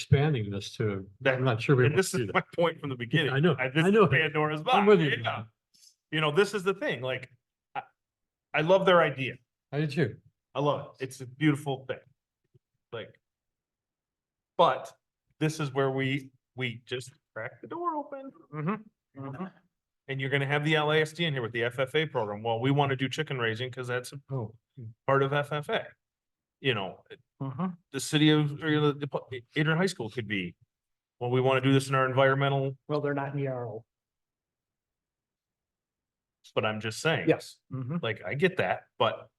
expanding this to, That- I'm not sure we And want this to do is that. my point from the beginning. I know, This I is know. Pandora's I'm box, with you. yeah. You know, this is the thing, like, I, I love their idea. I did too. I love it. It's a beautiful thing. Like. But this is where we, we just crack the door open. And you're gonna have the LASD in here with the FFA program. Well, we want to do chicken raising because that's a Oh. part of FFA. You know, Mm-hmm. the city of, or you know, the, the- Adrian High School could be, well, we want to do this in our environmental, Well, they're not in the RO. but I'm just saying. Yes. Like, I get that, but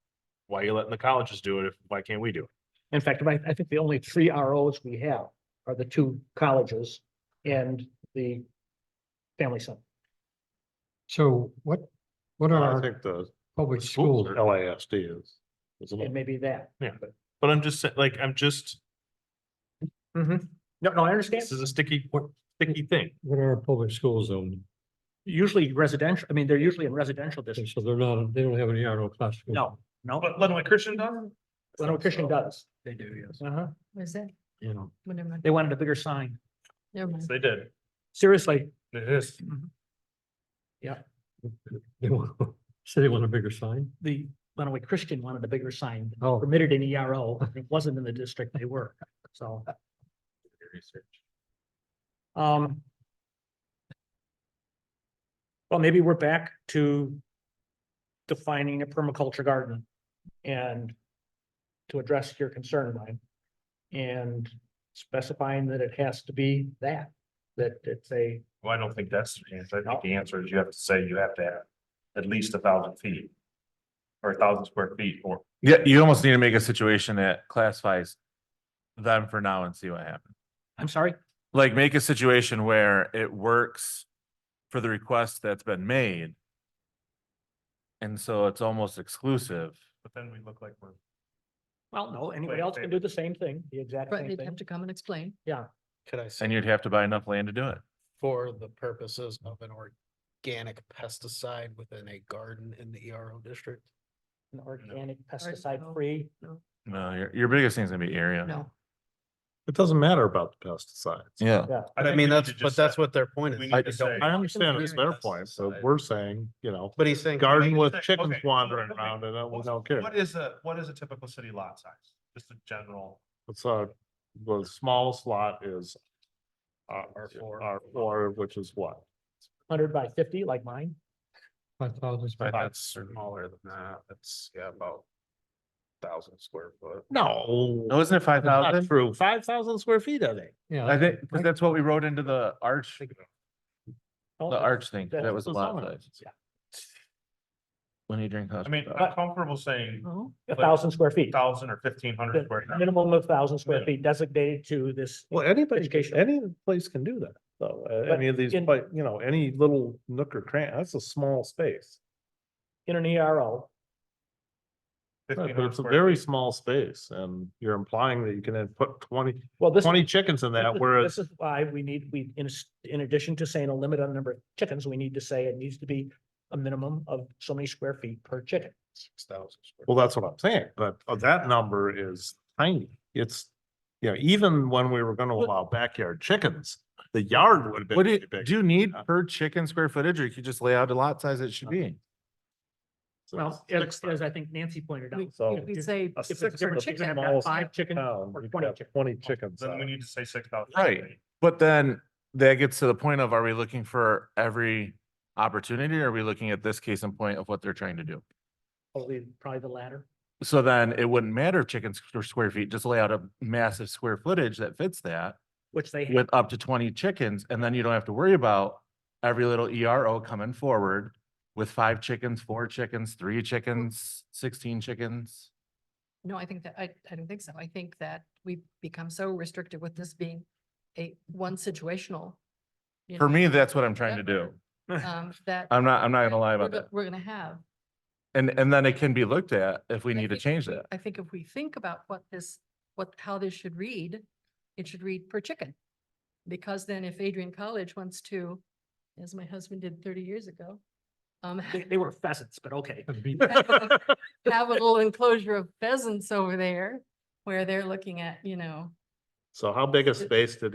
why are you letting the colleges do it? if Why can't we do it? In fact, I, I think the only three ROs we have are the two colleges and the family center. So what, what are I our think the public schools schools? are- LASD is. is a It little- may be that. But I'm just, sa- like, I'm just, Mm-hmm. No, no, I understand. this is a sticky, sticky thing. What are our public schools own? Usually residential, I mean, they're usually in residential districts. So they're not, they don't have any RO classification. No, no, But Lenawee Christian does? Leno Christian does. They do, yes. Uh-huh. Was that, You know, whatever, They wanted a bigger sign. never mind. They did. Seriously, It is. they want, say they want a bigger sign. the Lenawee Christian wanted a bigger sign Oh. permitted in ERO. It wasn't in the district they were, so. Um. Well, maybe we're back to defining a permaculture garden and to address your concern, Ryan. And specifying that it has to be that, that it's a, Well, I don't think that's the answer. I think the answer is you have to say you have to have at least a thousand feet. Or a thousand square feet or. Yeah, you almost need to make a situation that classifies them for now and see what happens. I'm sorry, Like make a situation where it works for the request that's been made. And so it's almost exclusive. But then we look like we're. well, no, anybody Wait, else can wait. do the same thing, the exact Right, same they'd have thing. to come and explain. Could I say And you'd have to buy enough land to do it. for the purposes of an organic pesticide within a garden in the ERO district? An organic pesticide free, No, your, your biggest thing's gonna be area. No, It doesn't matter about the pesticides. Yeah. I mean, that's, but that's what their point we is. need I to don't- say- I understand it's their Pesticides. point, so we're saying, you know, But he's saying. garden with Okay, chickens okay, wandering okay. around and we don't care. What is a, what is a typical city lot size? Just a general. It's uh the smallest lot is uh, R four. R four, which is what? hundred by fifty like mine. Five thousand. But That's smaller than that. That's, yeah, about thousand square foot. No. Oh, isn't it five that's not thousand? True, five thousand square feet, I think. Yeah. I think, because that's what we wrote into the arch, Oh, the arch thing. that's That was a the lot zoning. size. When you drink. I mean, I'm comfortable saying no, A thousand square feet. thousand or fifteen hundred the square. minimum of thousand square Yeah. feet designated to this, Well, anybody, Educational. any place can do that, though. uh, But Any of these, in- but, you know, any little nook or cranny, that's a small space. in an E ERO. Right, But it's a very small space and you're implying that you can then put 20 Well, this. 20 chickens in this that, is- whereas, This is why we need, we, in, s- in addition to saying a limit on the number of chickens, we need to say it needs to be a minimum of so many square feet per chicken. Six thousand. well, that's what I'm saying, but uh, that number is tiny. It's, you know, even when we were gonna What- allow backyard chickens, the yard would have been. What do you, really big. do you need Yeah. per chicken square footage or you could just lay out a lot size it should be? So Well, six as, thousand as I think Nancy pointed out. So- if we'd it's- say, A If it's a six different hundred chicken, I've small got five chickens. pound, or you've 20 got chickens. Twenty chickens. uh, Then we out. need to say six thousand. Right. But then that gets to the point of, are we looking for every opportunity? or Are we looking at this case in point of what they're trying to do? Probably, probably the latter. So then it wouldn't matter if chickens or square feet, just lay out a massive square footage that fits that Which they have, with up to twenty chickens, and then you don't have to worry about every little ERO coming forward with five chickens, four chickens, three chickens, sixteen chickens. no, I think that, I, I don't think so. I think that we've become so restricted with this being a one situational. you For know, me, that's what I'm trying to do. number, Um, that. I'm not, I'm not gonna lie we're about go- that. We're gonna have. And, and then it can be looked at if we I need to think if change we- that. I think if we think about what this, what, how this should read, it should read per chicken. Because then if Adrian College wants to, as my husband did thirty years ago, um, they, they were pheasants, but okay. A beat- have a little enclosure of pheasants over there where they're looking at, you know, So how big a space did